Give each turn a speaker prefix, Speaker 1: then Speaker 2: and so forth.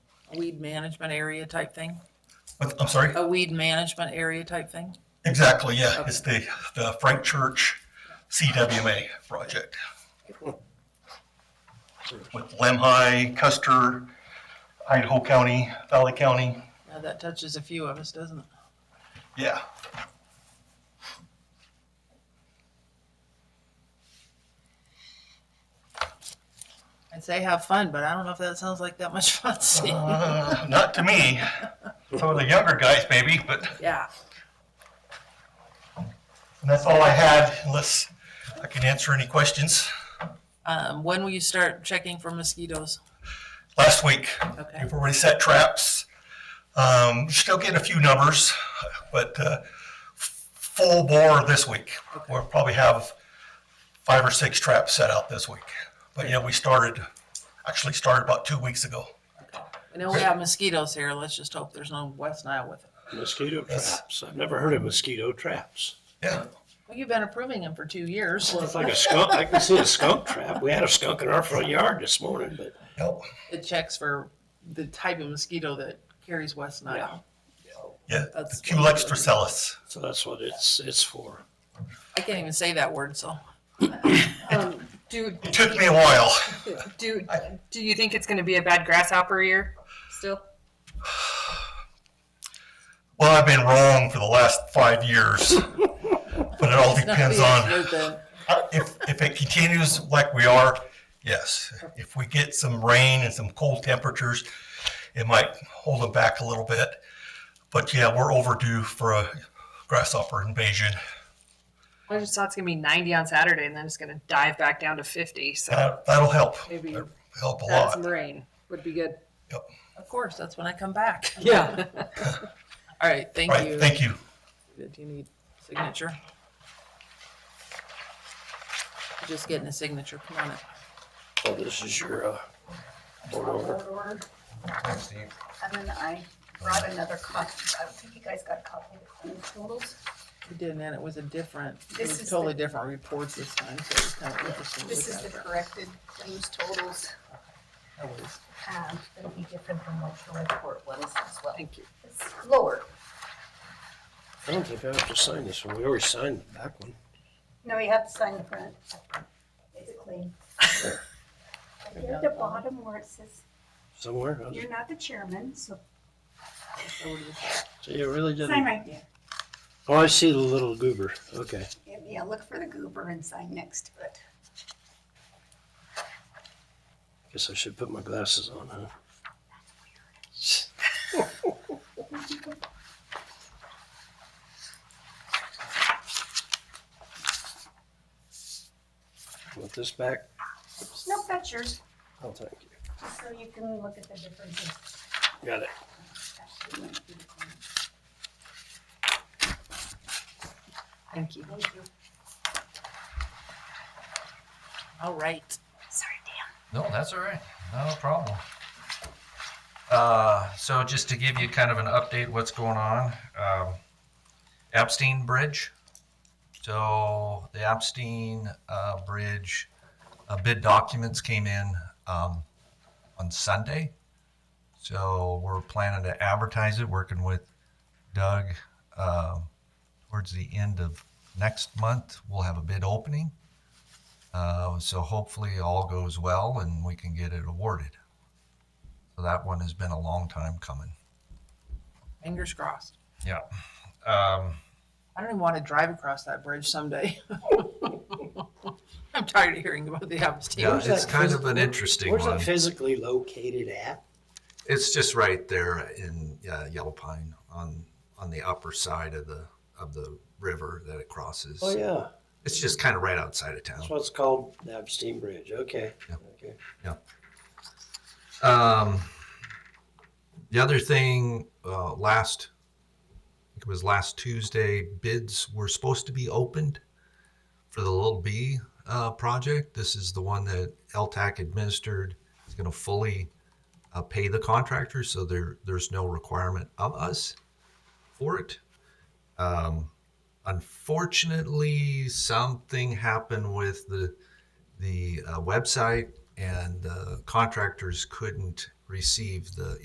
Speaker 1: weed management area type thing?
Speaker 2: But- I'm sorry?
Speaker 1: A weed management area type thing?
Speaker 2: Exactly, yeah. It's the, the Frank Church CWMA project. With Lemhi, Custer, Idaho County, Valley County,
Speaker 1: Now, that touches a few of us, doesn't it?
Speaker 2: yeah.
Speaker 1: I'd say have fun, but I don't know if that sounds like that much fun. to me.
Speaker 2: Uh, Not to me. Some of the younger guys maybe, but
Speaker 1: Yeah.
Speaker 2: that's all I had unless I can answer any questions.
Speaker 1: Um, when will you start checking for mosquitoes?
Speaker 2: Last week,
Speaker 1: Okay,
Speaker 2: We've already set traps. Um, still getting a few numbers, but, uh, f- full bore this week. We'll probably have five or six traps set out this week. But yeah, we started, actually started about two weeks ago.
Speaker 1: I know we have mosquitoes here, let's just hope there's no West Nile with it.
Speaker 3: Mosquito
Speaker 2: Yes.
Speaker 3: traps. I've never heard of mosquito traps.
Speaker 2: Yeah,
Speaker 1: Well, you've been approving them for two years.
Speaker 3: Well, it's like a skunk. I can see a skunk trap. We had a skunk in our front yard this morning, but
Speaker 2: yep,
Speaker 1: It checks for the type of mosquito that carries West Nile.
Speaker 2: yeah.
Speaker 1: That's-
Speaker 2: Culex tricellus.
Speaker 3: so that's what it's it's for.
Speaker 1: I can't even say that word, so.
Speaker 4: Um, do,
Speaker 2: It took me a while.
Speaker 4: do, do you think it's gonna be a bad grasshopper year still?
Speaker 2: Well, I've been wrong for the last five years. But it all depends on. Uh, If, if it continues like we are, yes. If we get some rain and some cold temperatures, it might hold them back a little bit. But yeah, we're overdue for a grasshopper invasion.
Speaker 4: I just thought it's gonna be ninety on Saturday and then it's gonna dive back down to fifty, so
Speaker 2: That, that'll help,
Speaker 4: maybe
Speaker 2: That'll help a
Speaker 4: that's
Speaker 2: lot.
Speaker 4: some rain would be good.
Speaker 1: Of course, that's when I come back.
Speaker 4: Yeah.
Speaker 1: All right, thank
Speaker 2: Right,
Speaker 1: you.
Speaker 2: thank you.
Speaker 1: Do you need signature? Just getting a signature, come on up.
Speaker 3: Oh, this is your uh, board order.
Speaker 5: order. And then I brought another copy. I don't think you guys got a copy of the claims totals.
Speaker 1: We did, and it was a different, it
Speaker 5: This
Speaker 1: was
Speaker 5: is
Speaker 1: totally
Speaker 5: the-
Speaker 1: different reports this time, so it's kind of interesting. to
Speaker 5: This
Speaker 1: look
Speaker 5: is the
Speaker 1: at it.
Speaker 5: corrected claims totals.
Speaker 1: That was-
Speaker 5: Um, it'll be different from what your report was as well.
Speaker 1: Thank you.
Speaker 5: It's lower.
Speaker 3: I don't think I have to sign this one. We already signed the back one.
Speaker 5: No, you have to sign the front. It's clean. Right there At the bottom where it says,
Speaker 3: Somewhere. I was-
Speaker 5: you're not the chairman, so
Speaker 3: So you really
Speaker 5: sign
Speaker 3: didn't.
Speaker 5: right there.
Speaker 3: Oh, I see the little goober. Okay.
Speaker 5: Yeah, look for the goober and sign next to it.
Speaker 3: Guess I should put my glasses on, huh? Want this back?
Speaker 5: Nope, that's yours,
Speaker 3: Oh, thank you.
Speaker 5: just so you can look at the differences.
Speaker 3: Got it.
Speaker 5: Thank you. Thank you.
Speaker 1: All right.
Speaker 5: Sorry, Dan.
Speaker 6: No, that's all right. Not a problem. Uh, so just to give you kind of an update, what's going on, um, Epstein Bridge. So the Epstein, uh, Bridge, uh, bid documents came in, um, on Sunday. So we're planning to advertise it, working with Doug, um, towards the end of next month, we'll have a bid opening. Uh, so hopefully all goes well and we can get it awarded. So that one has been a long time coming.
Speaker 1: Fingers crossed.
Speaker 6: Yeah. Um,
Speaker 1: I don't even want to drive across that bridge someday. I'm tired of hearing about the
Speaker 6: yeah,
Speaker 1: Abstain.
Speaker 3: Where's
Speaker 6: it's
Speaker 3: that
Speaker 6: kind
Speaker 3: phys-
Speaker 6: of an interesting
Speaker 3: Where's
Speaker 6: one.
Speaker 3: it physically located at?
Speaker 6: It's just right there in uh, Yellow Pine on on the upper side of the of the river that it crosses.
Speaker 3: Oh, yeah.
Speaker 6: It's just kind of right outside of town.
Speaker 3: That's what's called the Epstein Bridge. Okay.
Speaker 6: Yeah.
Speaker 3: Okay.
Speaker 6: Um, the other thing, uh, last, I think it was last Tuesday, bids were supposed to be opened for the Little B uh, project. This is the one that LTAC administered. It's going to fully uh, pay the contractor, so there there's no requirement of us for it. Um, unfortunately, something happened with the the uh, website and the contractors couldn't receive the